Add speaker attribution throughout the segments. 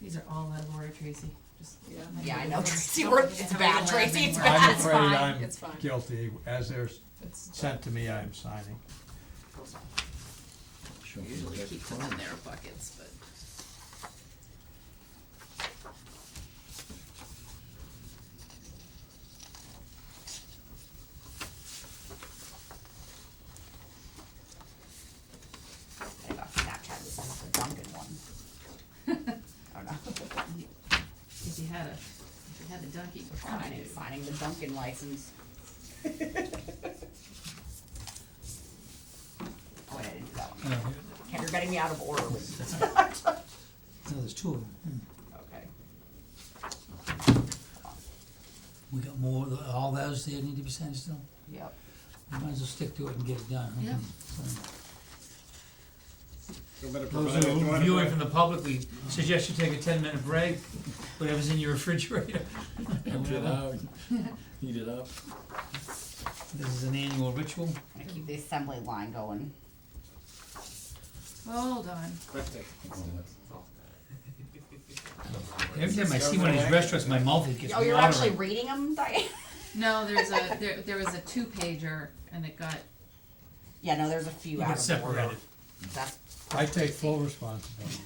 Speaker 1: These are all out of order, Tracy, just.
Speaker 2: Yeah.
Speaker 3: Yeah, I know, Tracy, we're, it's bad, Tracy, it's
Speaker 4: I'm
Speaker 3: bad, it's
Speaker 4: afraid
Speaker 3: fine.
Speaker 4: I'm
Speaker 2: It's fine.
Speaker 4: guilty, as they're s-
Speaker 2: It's-
Speaker 4: sent to me, I'm signing.
Speaker 5: Sure.
Speaker 3: Usually keep them in their buckets, but. I got Snapchat, this is the Dunkin' one. I don't know.
Speaker 1: If you had a, if you had a donkey.
Speaker 3: Signing, signing the Dunkin' license. Oh, wait, I didn't do that one.
Speaker 5: No,
Speaker 3: Ken, you're getting me out of order with
Speaker 5: there's two of them. Hmm.
Speaker 3: Okay.
Speaker 5: We got more, all those there need to be sent still?
Speaker 3: Yep.
Speaker 5: We Might as well stick to it and get it done. huh?
Speaker 1: Yeah.
Speaker 3: Mm-hmm.
Speaker 6: You better
Speaker 5: Those
Speaker 6: provide- you
Speaker 5: who are
Speaker 6: wanna
Speaker 5: viewing from
Speaker 6: provide-
Speaker 5: the public, we suggest you take a ten-minute break, whatever's in your refrigerator.
Speaker 7: Empty it out, heat it up.
Speaker 5: This is an annual ritual.
Speaker 3: I'm gonna keep the assembly line going.
Speaker 1: Hold on.
Speaker 6: Quick,
Speaker 7: Oh,
Speaker 5: Every time I see one of these restaurants, my mouth it gets
Speaker 3: Oh,
Speaker 5: watering.
Speaker 3: you're actually reading them, Diane?
Speaker 1: No, there's a, there, there was a two pager and it got,
Speaker 3: Yeah, no, there's a few
Speaker 5: You
Speaker 3: out
Speaker 5: get
Speaker 3: of order.
Speaker 5: separated.
Speaker 3: That's,
Speaker 4: I take full responsibility.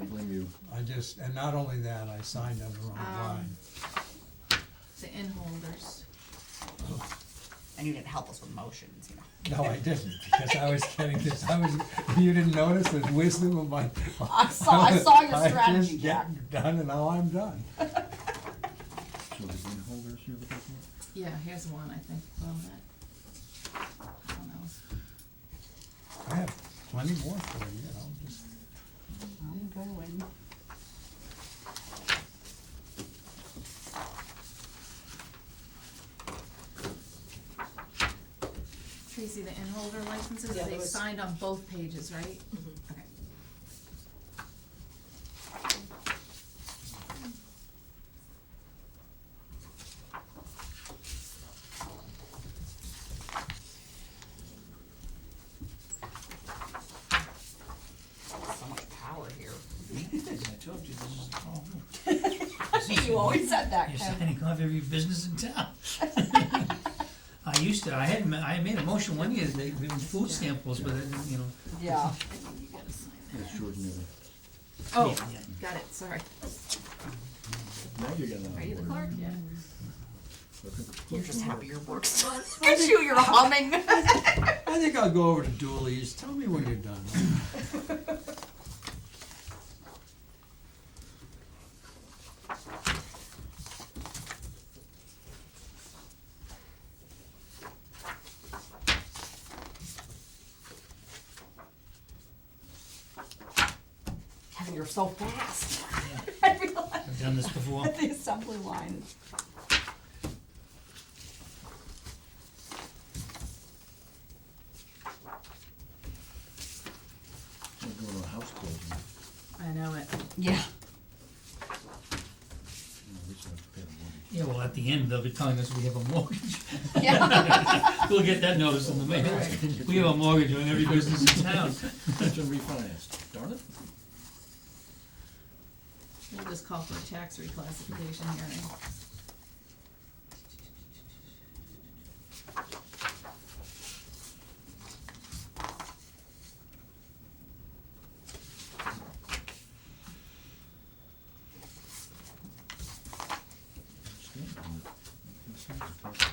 Speaker 7: I blame you.
Speaker 4: I just, and not only that, I signed on the wrong
Speaker 3: Um,
Speaker 4: line.
Speaker 1: the in holders.
Speaker 3: and you didn't help us with motions, you know.
Speaker 4: No, I didn't, because I was getting this, I was, you didn't notice the wisdom of my.
Speaker 3: I saw, I saw your
Speaker 4: I
Speaker 3: strategy,
Speaker 4: just
Speaker 3: Jack.
Speaker 4: get done and now I'm done.
Speaker 7: So the green holders you're looking for?
Speaker 1: Yeah, here's one, I think, well, that. I don't know.
Speaker 4: I have plenty more for you, you know, just.
Speaker 3: I'm going.
Speaker 1: Tracy, the in holder licenses,
Speaker 2: Yeah, there
Speaker 1: they
Speaker 2: was-
Speaker 1: signed on both pages, right? Okay.
Speaker 3: So much power here.
Speaker 5: I told you this is a problem.
Speaker 3: You always said that,
Speaker 5: You're
Speaker 3: Ken.
Speaker 5: signing off every business in town. I used to, I had, ma- I made a motion one year, they, they were food samples, but I didn't, you know,
Speaker 3: Yeah.
Speaker 1: I think you gotta sign
Speaker 7: It's ordinary.
Speaker 1: that. Oh,
Speaker 5: yeah.
Speaker 1: got it, sorry.
Speaker 7: Now you're getting out
Speaker 1: Are you the
Speaker 7: of order.
Speaker 1: clerk? Yeah.
Speaker 3: You're just happy your work's done. Look at you, you're humming.
Speaker 4: I think I'll go over to Dooley's, tell me when you're done.
Speaker 3: Kevin, you're so fast. I realized
Speaker 5: I've done this before.
Speaker 3: the assembly line.
Speaker 7: We're doing a house closing. You
Speaker 1: I know it.
Speaker 3: Yeah.
Speaker 7: know, we still have to pay the mortgage.
Speaker 5: Yeah, well, at the end, they'll be telling us we have a mortgage.
Speaker 3: Yeah.
Speaker 5: We'll get that notice in the mail. We have a mortgage on every business in town.
Speaker 7: It's been refinanced, darn it.
Speaker 1: We'll just call for a tax reclassification hearing.
Speaker 7: It's good, isn't it? It's nice to talk.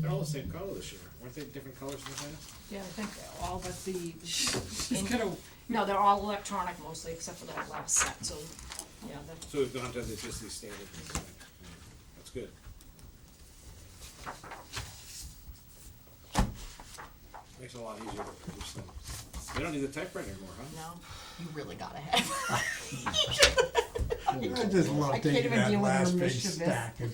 Speaker 6: They're all the same color this year, weren't they different colors in the past?
Speaker 2: Yeah, I think all but the, in- no, they're all electronic mostly, except for that last set, so, yeah, that,
Speaker 6: So we've gone to the, just these standard ones, right? that's good. Makes it a lot easier to produce them. They don't need the typewriter anymore, huh?
Speaker 2: no.
Speaker 3: You really got ahead.
Speaker 4: I just love
Speaker 3: can't
Speaker 4: taking
Speaker 3: even
Speaker 4: that
Speaker 3: deal with your
Speaker 4: last big
Speaker 3: mischievous-
Speaker 4: stack and